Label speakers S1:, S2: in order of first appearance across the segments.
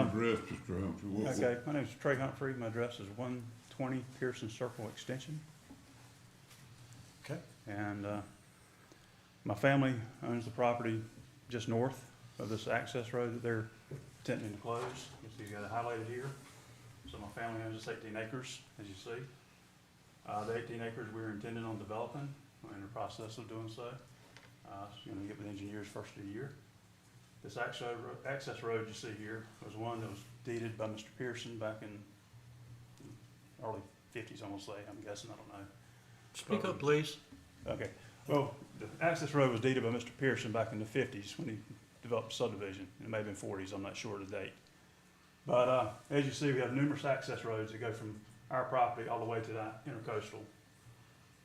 S1: address, Mr. Humphrey? What-
S2: Okay, my name is Trey Humphrey. My address is one twenty Pearson Circle Extension.
S3: Okay.
S2: And, uh, my family owns the property just north of this access road that they're intending to close. You see, you got it highlighted here. So my family owns this eighteen acres, as you see. Uh, the eighteen acres we're intending on developing, we're in the process of doing so. Uh, it's gonna get with engineers first of the year. This access, ro- access road you see here was one that was deeded by Mr. Pearson back in early fifties, I'm gonna say, I'm guessing, I don't know.
S3: Speak up, please.
S2: Okay, well, the access road was deeded by Mr. Pearson back in the fifties when he developed subdivision. It may have been forties, I'm not sure of the date. But, uh, as you see, we have numerous access roads that go from our property all the way to the intercoastal.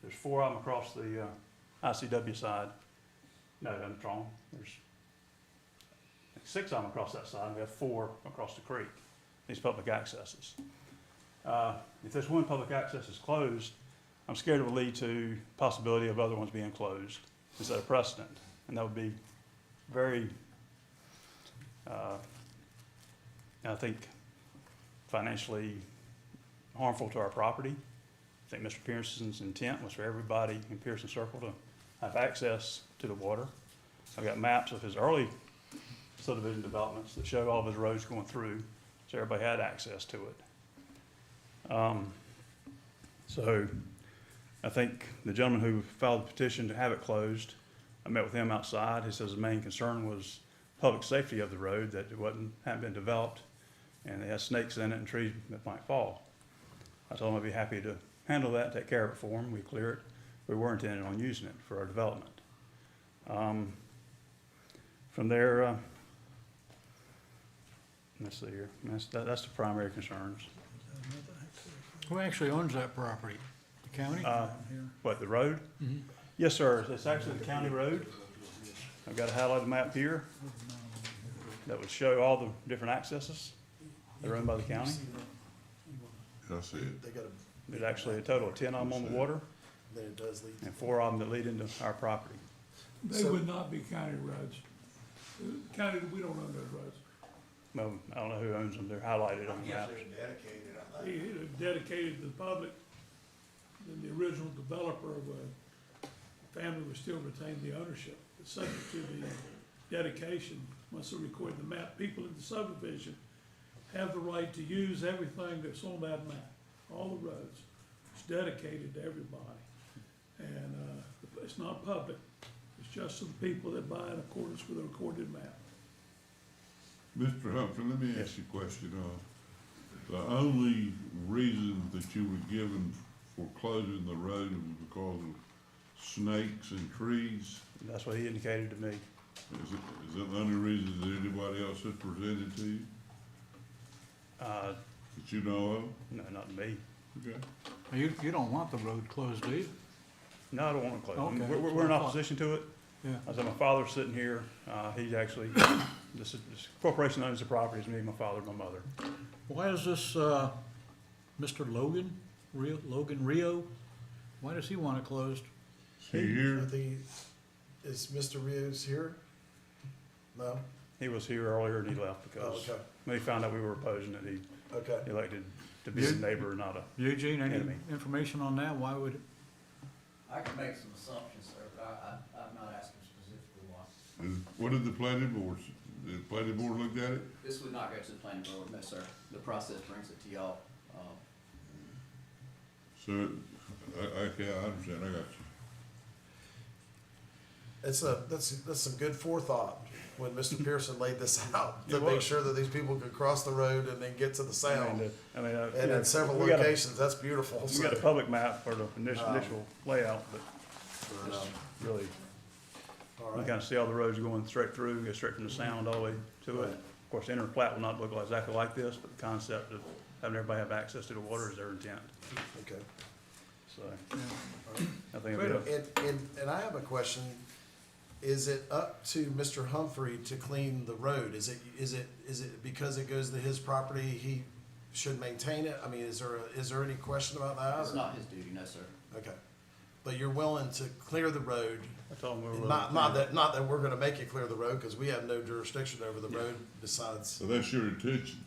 S2: There's four of them across the, uh, ICW side. No, I'm wrong. There's six of them across that side, and we have four across the creek, these public accesses. Uh, if this one public access is closed, I'm scared it will lead to possibility of other ones being closed instead of precedent. And that would be very, uh, I think financially harmful to our property. I think Mr. Pearson's intent was for everybody in Pearson Circle to have access to the water. I've got maps of his early subdivision developments that show all of his roads going through, so everybody had access to it. Um, so I think the gentleman who filed the petition to have it closed, I met with him outside. He says the main concern was public safety of the road, that it wasn't, hadn't been developed, and it has snakes in it and trees that might fall. I told him I'd be happy to handle that, take care of it for him, we clear it. We were intending on using it for our development. Um, From there, uh, let's see here, that's, that- that's the primary concerns.
S3: Who actually owns that property? The county?
S2: Uh, What, the road?
S3: Mhm.
S2: Yes, sir, it's actually the county road. I've got a highlighted map here that would show all the different accesses. They're owned by the county.
S1: I see it.
S4: They got a,
S2: There's actually a total of ten of them on the water
S4: then it does lead.
S2: and four of them that lead into our property.
S5: They
S4: So-
S5: would not be county roads. County, we don't own those roads.
S2: Well, I don't know who owns them, they're highlighted on the map.
S4: dedicated, I
S5: They either dedicated to the public, then the original developer of a family would still retain the ownership. It's Subject to the dedication, once they record the map, people in the subdivision have the right to use everything that's on that map, all the roads. It's dedicated to everybody. And, uh, it's not public, it's just some people that buy in accordance with the recorded map.
S1: Mr. Humphrey, let me ask you a question. Uh, the only reason that you were given for closing the road was because of snakes and trees?
S2: That's what he indicated to me.
S1: Is it, is that the only reason that anybody else has presented to you,
S2: Uh,
S1: that you know of?
S2: no, not me.
S1: Okay.
S3: You, you don't want the road closed, do you?
S2: No, I don't want to close them.
S3: Okay.
S2: We're, we're- we're in opposition to it.
S3: Yeah.
S2: I said, my father's sitting here, uh, he's actually, this is, this corporation owns the property, it's me, my father, and my mother.
S3: Why is this, uh, Mr. Logan, Rio, Logan Rio? Why does he want it closed?
S1: Is he here?
S4: think, is Mr. Rios here? No?
S2: He was here earlier and he left
S4: Oh,
S2: because
S4: okay,
S2: when he found out we were opposing it, he
S4: okay.
S2: elected to be a neighbor, not a,
S3: Eugene, any
S2: Enemy.
S3: information on that? Why would,
S6: I can make some assumptions, sir, but I, I, I'm not asking specifically why.
S1: Is- What did the planning board, s- did the planning board look at it?
S6: This would not go to the planning board, no, sir. The process brings it to y'all. Um,
S1: So, I, I, okay, I understand, I got you.
S4: It's a, that's, that's some good forethought when Mr. Pearson laid this out, to
S2: It
S4: make
S2: was.
S4: sure that these people could cross the road and then get to the
S2: I mean,
S4: sound.
S2: the- I mean, uh,
S4: And in several
S2: we got a-
S4: locations, uh, that's beautiful.
S2: We got a
S4: so-
S2: public map for the initial, initial layout, but
S4: But, um,
S2: really,
S4: all
S2: you
S4: right.
S2: kind of see all the roads going straight through, go straight from the sound all the way to it.
S4: Right.
S2: Of course, the inner plat will not look like- exactly like this, but the concept of having everybody have access to the water is their intent,
S4: Okay.
S2: so.
S4: right.
S2: I think it'll be,
S4: And, and, and I have a question. Is it up to Mr. Humphrey to clean the road? Is it, is it, is it because it goes to his property, he should maintain it? I mean, is there, a- is there any question about that?
S6: It's not his duty, no, sir.
S4: Okay. But you're willing to clear the road?
S2: I told him we were. willing
S4: Not,
S2: to
S4: not
S2: clear
S4: that, not that we're gonna make you clear the road, cause we have no jurisdiction over the
S2: Yeah.
S4: road besides,
S1: So that's your intention?